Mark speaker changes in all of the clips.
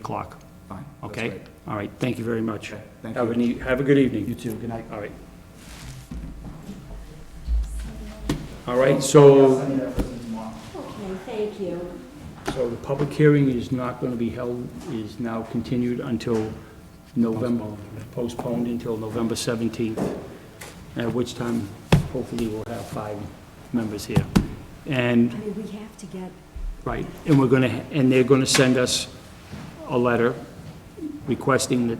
Speaker 1: o'clock,
Speaker 2: Fine. that's
Speaker 1: okay?
Speaker 2: great.
Speaker 1: All right, thank you very much.
Speaker 2: Thank
Speaker 1: Have a,
Speaker 2: you.
Speaker 1: nee- have a good
Speaker 2: You
Speaker 1: evening.
Speaker 2: too, good night.
Speaker 1: All right. All right, so,
Speaker 2: Send me that person tomorrow.
Speaker 3: Okay, thank you.
Speaker 1: so the public hearing is not going to be held, is now continued until November, postponed until November 17th, at which time hopefully we'll have five members here. And
Speaker 3: I mean, we have to get,
Speaker 1: Right, and we're going to, and they're going to send us a letter requesting that,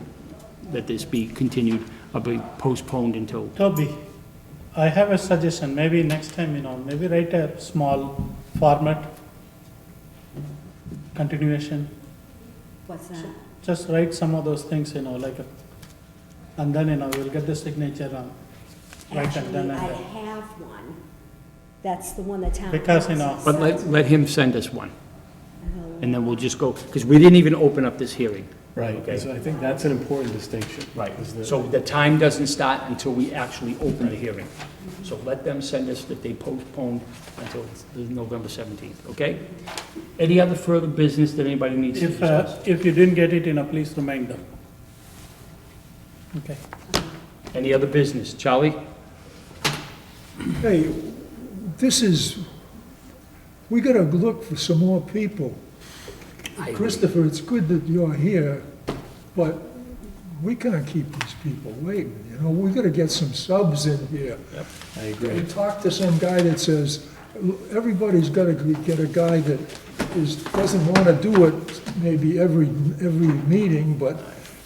Speaker 1: that this be continued, or be postponed until,
Speaker 4: Toby, I have a suggestion, maybe next time, you know, maybe write a small format continuation,
Speaker 3: what's uh, that?
Speaker 4: just write some of those things, you know, like, a- and then, you know, we'll get the signature on. Right, and
Speaker 3: Actually,
Speaker 4: then I-
Speaker 3: I have one. That's the one the town.
Speaker 4: Because, you know-
Speaker 3: council
Speaker 1: but let,
Speaker 3: sent.
Speaker 1: let him send us one,
Speaker 3: Oh,
Speaker 1: and then we'll just go, because we didn't even open up this hearing. Okay.
Speaker 5: Right, so I think that's an important distinction. is that-
Speaker 1: So the time doesn't start until we actually open the hearing. So let them send us that they postponed until the November 17th, okay? Any other further business that anybody needs to
Speaker 4: If, uh,
Speaker 1: discuss?
Speaker 4: if you didn't get it, you know, please remind them. Okay.
Speaker 1: Any other business? Charlie?
Speaker 6: Hey, this is, we gotta look for some more people. Christopher, it's good that you're here, but we can't keep these people waiting, you know? We gotta get some subs in here.
Speaker 5: I
Speaker 6: You
Speaker 5: agree.
Speaker 6: talk to some guy that says, everybody's gotta get a guy that is, doesn't wanna do it maybe every, every meeting, but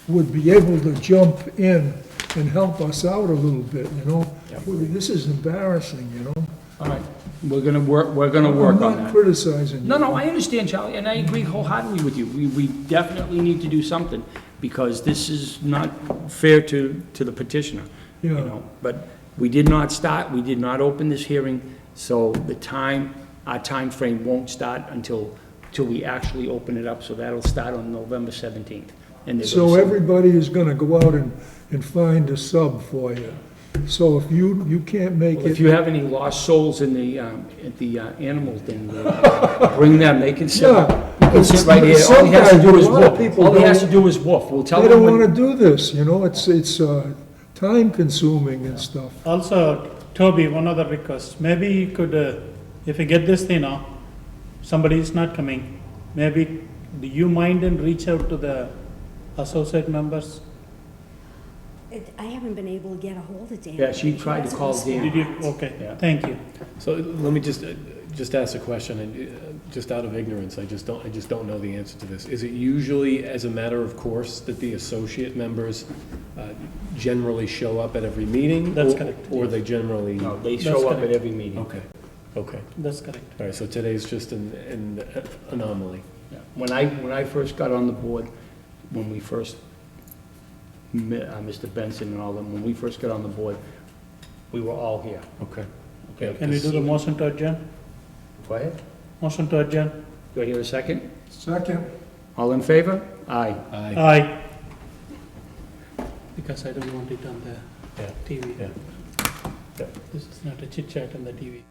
Speaker 6: would be able to jump in and help us out a little bit, you know? This is embarrassing, you know?
Speaker 1: All right, we're going to work, we're going to work on
Speaker 6: I'm not
Speaker 1: that.
Speaker 6: criticizing you.
Speaker 1: No, no, I understand, Charlie, and I agree wholeheartedly with you. We, we definitely need to do something, because this is not fair to, to the petitioner, you
Speaker 6: Yeah.
Speaker 1: know? But we did not start, we did not open this hearing, so the time, our time frame won't start until, till we actually open it up, so that'll start on November 17th. And they're gonna
Speaker 6: So
Speaker 1: send-
Speaker 6: everybody is gonna go out and, and find a sub for you. So if you, you can't make
Speaker 1: Well, If
Speaker 6: it,
Speaker 1: you have any lost souls in the, um, at the uh, animal den, uh, bring them, they can sit,
Speaker 6: Yeah.
Speaker 1: they can sit right here. All he has to do is
Speaker 6: Sometimes a lot of
Speaker 1: woof,
Speaker 6: people
Speaker 1: all he has to
Speaker 6: don't-
Speaker 1: do is woof, we'll tell
Speaker 6: they
Speaker 1: him
Speaker 6: don't
Speaker 1: when,
Speaker 6: wanna do this, you know, it's, it's, uh, time consuming and stuff.
Speaker 4: Also, Toby, one other request, maybe you could, uh, if you get this, you know, somebody is not coming, maybe, do you mind and reach out to the associate members?
Speaker 3: it- I haven't been able to get a hold of Dan.
Speaker 1: Yeah, she tried to call
Speaker 3: hasn't
Speaker 1: Dan.
Speaker 4: Did you, okay,
Speaker 1: Yeah.
Speaker 4: thank you.
Speaker 5: So let me just, uh, just ask a question, and uh, just out of ignorance, I just don't, I just don't know the answer to this. Is it usually, as a matter of course, that the associate members uh, generally show up at every meeting?
Speaker 4: That's
Speaker 5: Or-
Speaker 4: correct,
Speaker 5: Or they generally?
Speaker 1: no, they
Speaker 4: That's
Speaker 1: show up at
Speaker 4: correct.
Speaker 1: every meeting.
Speaker 5: Okay, okay.
Speaker 4: That's correct.
Speaker 5: All right, so today's just an, an anomaly.
Speaker 1: Yeah. When I, when I first got on the board, when we first, mi- uh, Mr. Benson and all them, when we first got on the board, we were all here.
Speaker 5: Okay.
Speaker 4: Can we do the motion to adjourn?
Speaker 1: Go ahead.
Speaker 4: Motion to adjourn?
Speaker 1: Do I hear a second?
Speaker 6: Second.
Speaker 1: All in favor? Aye.
Speaker 5: Aye.
Speaker 4: Aye. Because I don't want it on the
Speaker 5: Yeah.
Speaker 4: TV.
Speaker 5: Yeah. Yeah.
Speaker 4: This is not a chit chat on the TV.